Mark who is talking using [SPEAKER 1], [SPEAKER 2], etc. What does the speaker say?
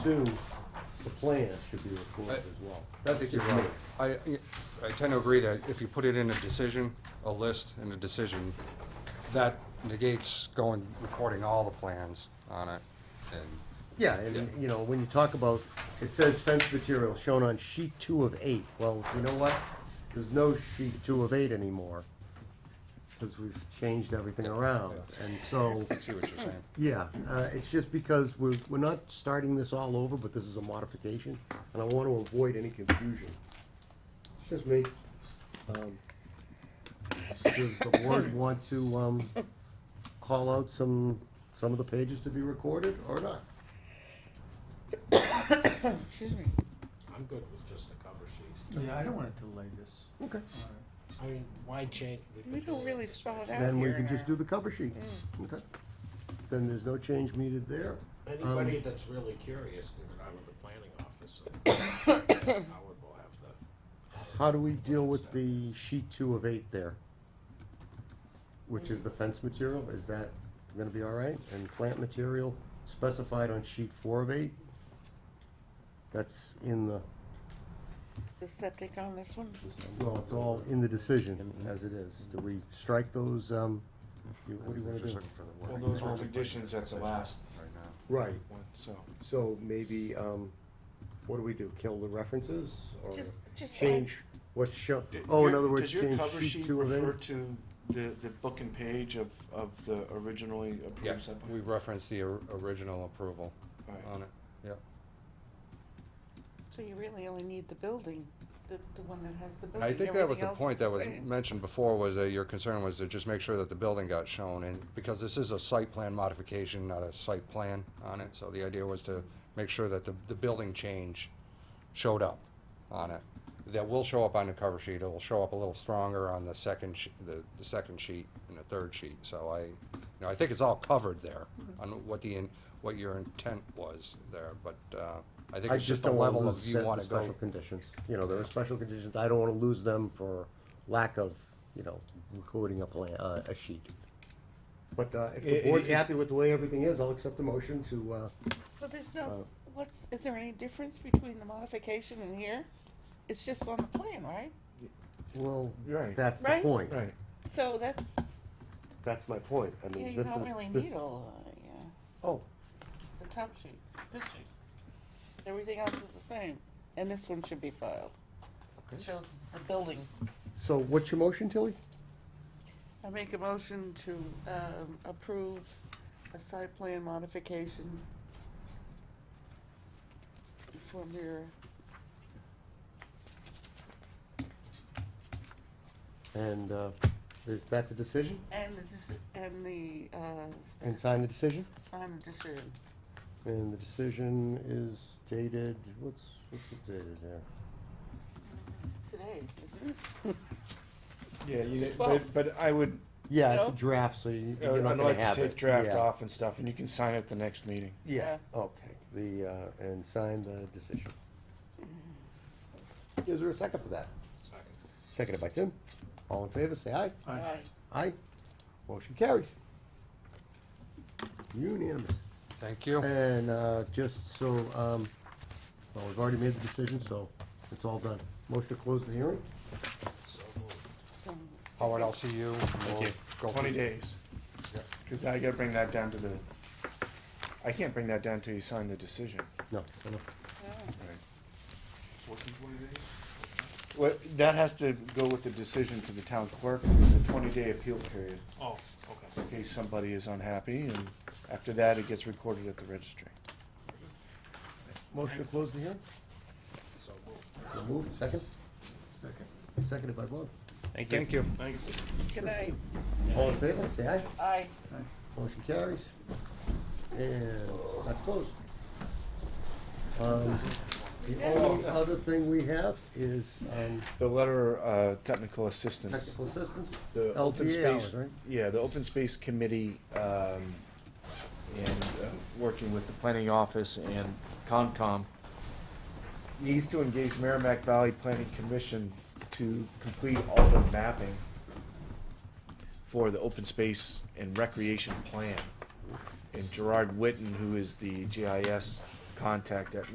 [SPEAKER 1] Two, the plan should be recorded as well.
[SPEAKER 2] I think you're right. I, I tend to agree that if you put it in a decision, a list and a decision, that negates going, recording all the plans on it. And
[SPEAKER 1] Yeah, and, you know, when you talk about, it says fence material shown on sheet two of eight, well, you know what? There's no sheet two of eight anymore, because we've changed everything around, and so,
[SPEAKER 2] I see what you're saying.
[SPEAKER 1] yeah, uh, it's just because we're, we're not starting this all over, but this is a modification, and I want to avoid any confusion. It's just me. Um, Does the board want to, um, call out some, some of the pages to be recorded, or not?
[SPEAKER 3] Excuse me.
[SPEAKER 4] I'm good with just the cover sheet.
[SPEAKER 5] Yeah, I don't want to delay this.
[SPEAKER 1] Okay.
[SPEAKER 4] I mean, why change?
[SPEAKER 3] We don't really spell it out
[SPEAKER 1] Then we
[SPEAKER 3] here
[SPEAKER 1] can
[SPEAKER 3] in
[SPEAKER 1] just
[SPEAKER 3] our-
[SPEAKER 1] do the cover sheet. Okay. Then there's no change needed there.
[SPEAKER 4] Anybody
[SPEAKER 1] Um,
[SPEAKER 4] that's really curious can go down to the planning office. and Howard will have the.
[SPEAKER 1] How do we deal with the sheet two of eight there? Which is the fence material, is that gonna be all right? And plant material specified on sheet four of eight? That's in the,
[SPEAKER 3] The septic on this one?
[SPEAKER 1] well, it's all in the decision as it is. Do we strike those, um, you- what do you wanna
[SPEAKER 2] Just
[SPEAKER 1] do?
[SPEAKER 2] looking for the
[SPEAKER 6] Well,
[SPEAKER 2] word
[SPEAKER 6] those were conditions at the last
[SPEAKER 2] right now.
[SPEAKER 1] Right,
[SPEAKER 6] one, so.
[SPEAKER 1] so maybe, um, what do we do, kill the references or
[SPEAKER 3] Just- just add-
[SPEAKER 1] change what's shown? Oh, in other words,
[SPEAKER 6] Does your
[SPEAKER 1] change
[SPEAKER 6] cover
[SPEAKER 1] sheet
[SPEAKER 6] sheet
[SPEAKER 1] two of eight?
[SPEAKER 6] refer to the, the book and page of, of the originally
[SPEAKER 2] Yeah,
[SPEAKER 6] approved
[SPEAKER 2] we
[SPEAKER 6] subdivision?
[SPEAKER 2] reference the or- original approval
[SPEAKER 1] uh,
[SPEAKER 6] Alright.
[SPEAKER 2] on it, yeah.
[SPEAKER 3] So you really only need the building, the, the one that has the building.
[SPEAKER 2] I think that was
[SPEAKER 3] Everything
[SPEAKER 2] the
[SPEAKER 3] else
[SPEAKER 2] point
[SPEAKER 3] is the
[SPEAKER 2] that was
[SPEAKER 3] same.
[SPEAKER 2] mentioned before, was that your concern was to just make sure that the building got shown, and, because this is a site plan modification, not a site plan on it, so the idea was to make sure that the, the building change showed up on it. That will show up on the cover sheet, it'll show up a little stronger on the second, sh- the, the second sheet and the third sheet, so I, you know, I think it's all covered there, on what the, in- what your intent was there, but, uh, I think
[SPEAKER 1] I
[SPEAKER 2] it's
[SPEAKER 1] just
[SPEAKER 2] just a
[SPEAKER 1] don't wanna
[SPEAKER 2] level of
[SPEAKER 1] lose
[SPEAKER 2] you
[SPEAKER 1] set
[SPEAKER 2] wanna
[SPEAKER 1] the
[SPEAKER 2] go.
[SPEAKER 1] special conditions. You know, there are special conditions, I don't wanna lose them for lack of, you know, recording a plan, uh, a sheet. But, uh, if the
[SPEAKER 4] It-
[SPEAKER 1] board's
[SPEAKER 4] it's-
[SPEAKER 1] happy with the way everything is, I'll accept the motion to, uh,
[SPEAKER 3] Well, there's
[SPEAKER 2] Uh,
[SPEAKER 3] no, what's, is there any difference between the modification and here? It's just on the plan, right?
[SPEAKER 1] well,
[SPEAKER 6] Right.
[SPEAKER 1] that's the
[SPEAKER 3] Right?
[SPEAKER 1] point.
[SPEAKER 6] Right,
[SPEAKER 3] So that's,
[SPEAKER 1] That's my point, I
[SPEAKER 3] yeah,
[SPEAKER 1] mean,
[SPEAKER 3] you
[SPEAKER 1] this
[SPEAKER 3] don't
[SPEAKER 1] is,
[SPEAKER 3] really
[SPEAKER 1] this-
[SPEAKER 3] need all, of that, yeah,
[SPEAKER 1] Oh,
[SPEAKER 3] the top sheet, this sheet. Everything else is the same, and this one should be filed. It shows the building.
[SPEAKER 1] so what's your motion, Tilly?
[SPEAKER 3] I make a motion to um, approve a site plan modification for Mira.
[SPEAKER 1] And, uh, is that the decision?
[SPEAKER 3] And the, deci- and the, uh,
[SPEAKER 1] And sign the decision?
[SPEAKER 3] sign the decision.
[SPEAKER 1] And the decision is dated, what's, what's it dated there?
[SPEAKER 3] Today, isn't it?
[SPEAKER 6] yeah, you,
[SPEAKER 3] Twelve.
[SPEAKER 6] but, but I would,
[SPEAKER 1] Yeah, it's a
[SPEAKER 3] No.
[SPEAKER 1] draft, so you,
[SPEAKER 6] Uh, I
[SPEAKER 1] you're
[SPEAKER 6] would
[SPEAKER 1] not gonna
[SPEAKER 6] like to
[SPEAKER 1] have it.
[SPEAKER 6] take draft
[SPEAKER 1] Yeah.
[SPEAKER 6] off and stuff, and you can sign at the next meeting.
[SPEAKER 1] Yeah,
[SPEAKER 3] Yeah.
[SPEAKER 1] okay, the, uh, and sign the decision. Is there a second for that?
[SPEAKER 4] Second.
[SPEAKER 1] Seconded by Tim. All in favor, say aye.
[SPEAKER 5] Alright.
[SPEAKER 3] Aye.
[SPEAKER 1] Aye. Motion carries. Unanimous.
[SPEAKER 2] Thank you.
[SPEAKER 1] And, uh, just so, um, well, we've already made the decision, so it's all done. Motion to close the hearing?
[SPEAKER 4] So moved.
[SPEAKER 3] So- so-
[SPEAKER 2] Howard, I'll see you. We'll go
[SPEAKER 6] Twenty
[SPEAKER 2] through-
[SPEAKER 6] days,
[SPEAKER 2] Yeah.
[SPEAKER 6] cause I gotta bring that down to the, I can't bring that down till you sign the decision.
[SPEAKER 1] No, no, no.
[SPEAKER 3] Yeah.
[SPEAKER 6] Well, that has to go with the decision to the town clerk, there's a twenty-day appeal period.
[SPEAKER 4] Oh, okay.
[SPEAKER 6] in case somebody is unhappy, and after that, it gets recorded at the registry.
[SPEAKER 1] Motion to close the hearing?
[SPEAKER 4] So moved.
[SPEAKER 1] So moved, second? Second. Seconded by Bob.
[SPEAKER 2] Thank you.
[SPEAKER 4] Thank you.
[SPEAKER 3] Good night.
[SPEAKER 1] All in favor, say aye.
[SPEAKER 3] Aye.
[SPEAKER 1] Motion carries. And that's closed. Um, The only other thing we have is um,
[SPEAKER 6] The letter, uh, technical assistance.
[SPEAKER 1] technical assistance,
[SPEAKER 6] The open
[SPEAKER 1] LTA hours,
[SPEAKER 6] space-
[SPEAKER 1] right?
[SPEAKER 6] Yeah, the Open Space Committee, um, and, uh, working with the planning office and Concom, needs to engage Merrimack Valley Planning Commission to complete all the mapping for the open space and recreation plan. And Gerard Witten, who is the GIS contact at